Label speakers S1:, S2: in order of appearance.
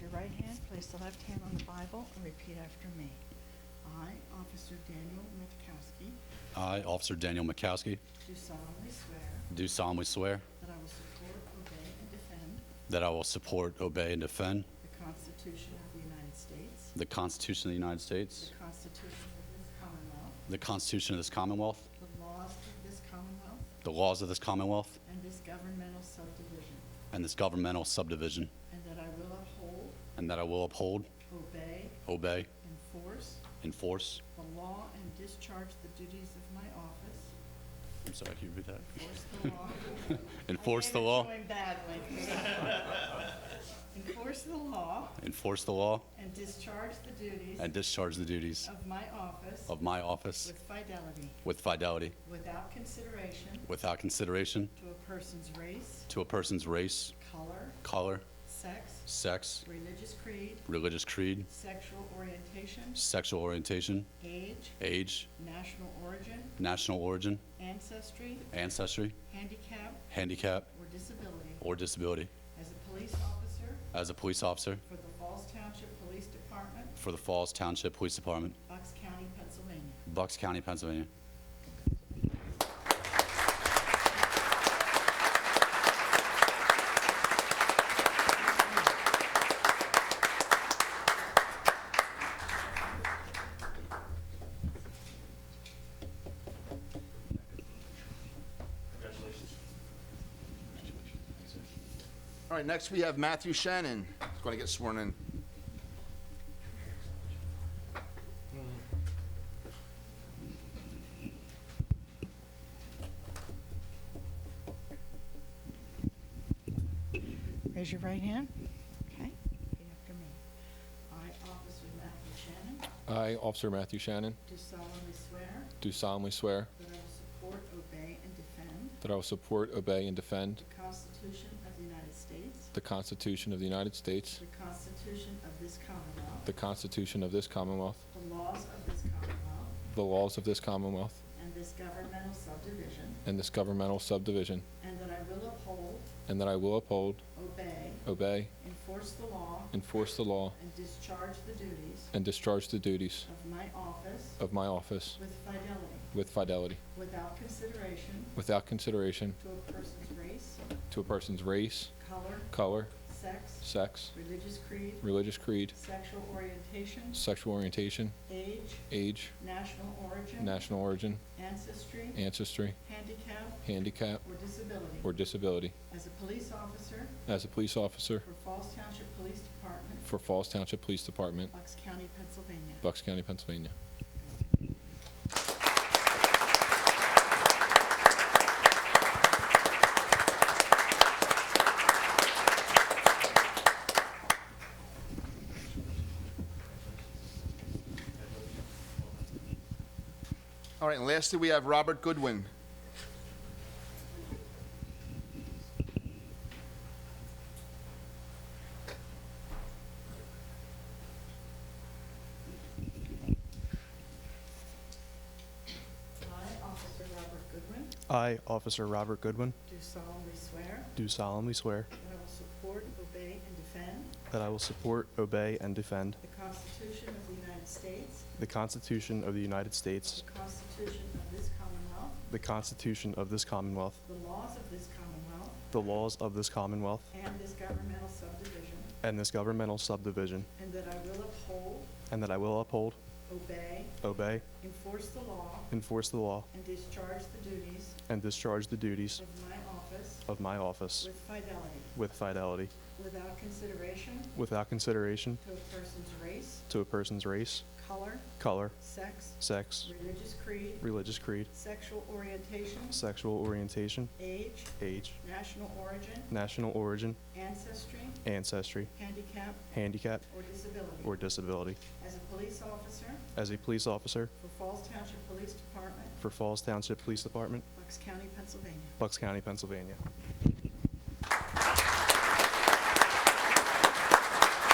S1: your right hand, place the left hand on the Bible, and repeat after me.
S2: I, Officer Daniel Metkowski,
S3: I, Officer Daniel Mikowski,
S2: do solemnly swear
S3: do solemnly swear
S2: that I will support, obey, and defend
S3: that I will support, obey, and defend
S2: the Constitution of the United States,
S3: the Constitution of the United States,
S2: the Constitution of this Commonwealth,
S3: the Constitution of this Commonwealth,
S2: the laws of this Commonwealth,
S3: the laws of this Commonwealth,
S2: and this governmental subdivision,
S3: and this governmental subdivision,
S2: and that I will uphold,
S3: and that I will uphold,
S2: obey,
S3: obey,
S2: enforce
S3: enforce,
S2: the law and discharge the duties of my office,
S3: I'm sorry, can you repeat that?
S2: enforce the law. I
S3: Enforce the
S2: gave it
S3: law,
S2: to him badly. Enforce the law
S3: enforce the law,
S2: and discharge the duties
S3: and discharge the duties
S2: of my office
S3: of my office
S2: with fidelity,
S3: with fidelity,
S2: without consideration
S3: without consideration
S2: to a person's race,
S3: to a person's race,
S2: color,
S3: color,
S2: sex,
S3: sex,
S2: religious creed,
S3: religious creed,
S2: sexual orientation,
S3: sexual orientation,
S2: age,
S3: age,
S2: national origin,
S3: national origin,
S2: ancestry,
S3: ancestry,
S2: handicap,
S3: handicap,
S2: or disability.
S3: or disability.
S2: As a police officer
S3: As a police officer
S2: for the Falls Township Police Department,
S3: for the Falls Township Police Department,
S2: Bucks County, Pennsylvania.
S3: Bucks County, Pennsylvania.
S4: All right, next we have Matthew Shannon, who's going to get sworn in.
S1: Raise your right hand. Okay, repeat after me.
S2: I, Officer Matthew Shannon,
S5: I, Officer Matthew Shannon,
S2: do solemnly swear
S5: do solemnly swear
S2: that I will support, obey, and defend
S5: that I will support, obey, and defend
S2: the Constitution of the United States,
S5: the Constitution of the United States,
S2: the Constitution of this Commonwealth,
S5: the Constitution of this Commonwealth,
S2: the laws of this Commonwealth,
S5: the laws of this Commonwealth,
S2: and this governmental subdivision,
S5: and this governmental subdivision,
S2: and that I will uphold,
S5: and that I will uphold,
S2: obey,
S5: obey,
S2: enforce the law,
S5: enforce the law,
S2: and discharge the duties
S5: and discharge the duties
S2: of my office
S5: of my office
S2: with fidelity,
S5: with fidelity,
S2: without consideration
S5: without consideration
S2: to a person's race,
S5: to a person's race,
S2: color,
S5: color,
S2: sex,
S5: sex,
S2: religious creed,
S5: religious creed,
S2: sexual orientation,
S5: sexual orientation,
S2: age,
S5: age,
S2: national origin,
S5: national origin,
S2: ancestry,
S5: ancestry,
S2: handicap,
S5: handicap,
S2: or disability.
S5: or disability.
S2: As a police officer
S5: As a police officer,
S2: for Falls Township Police Department,
S5: for Falls Township Police Department,
S2: Bucks County, Pennsylvania.
S5: Bucks County, Pennsylvania.
S4: All right, and lastly, we have Robert Goodwin.
S2: I, Officer Robert Goodwin,
S6: I, Officer Robert Goodwin,
S2: do solemnly swear
S6: do solemnly swear
S2: that I will support, obey, and defend
S6: that I will support, obey, and defend
S2: the Constitution of the United States,
S6: the Constitution of the United States,
S2: the Constitution of this Commonwealth,
S6: the Constitution of this Commonwealth,
S2: the laws of this Commonwealth,
S6: the laws of this Commonwealth,
S2: and this governmental subdivision,
S6: and this governmental subdivision,
S2: and that I will uphold,
S6: and that I will uphold,
S2: obey,
S6: obey,
S2: enforce the law,
S6: enforce the law,
S2: and discharge the duties
S6: and discharge the duties
S2: of my office
S6: of my office
S2: with fidelity,
S6: with fidelity,
S2: without consideration
S6: without consideration
S2: to a person's race,
S6: to a person's race,
S2: color,
S6: color,
S2: sex,
S6: sex,
S2: religious creed,
S6: religious creed,
S2: sexual orientation,
S6: sexual orientation,
S2: age,
S6: age,
S2: national origin,
S6: national origin,
S2: ancestry,
S6: ancestry,
S2: handicap,
S6: handicap,
S2: or
S6: or
S2: disability.
S6: disability.
S2: As a police officer
S6: As a police officer
S2: for Falls Township Police Department,
S6: for Falls Township Police Department,
S2: Bucks County, Pennsylvania.
S6: Bucks County, Pennsylvania.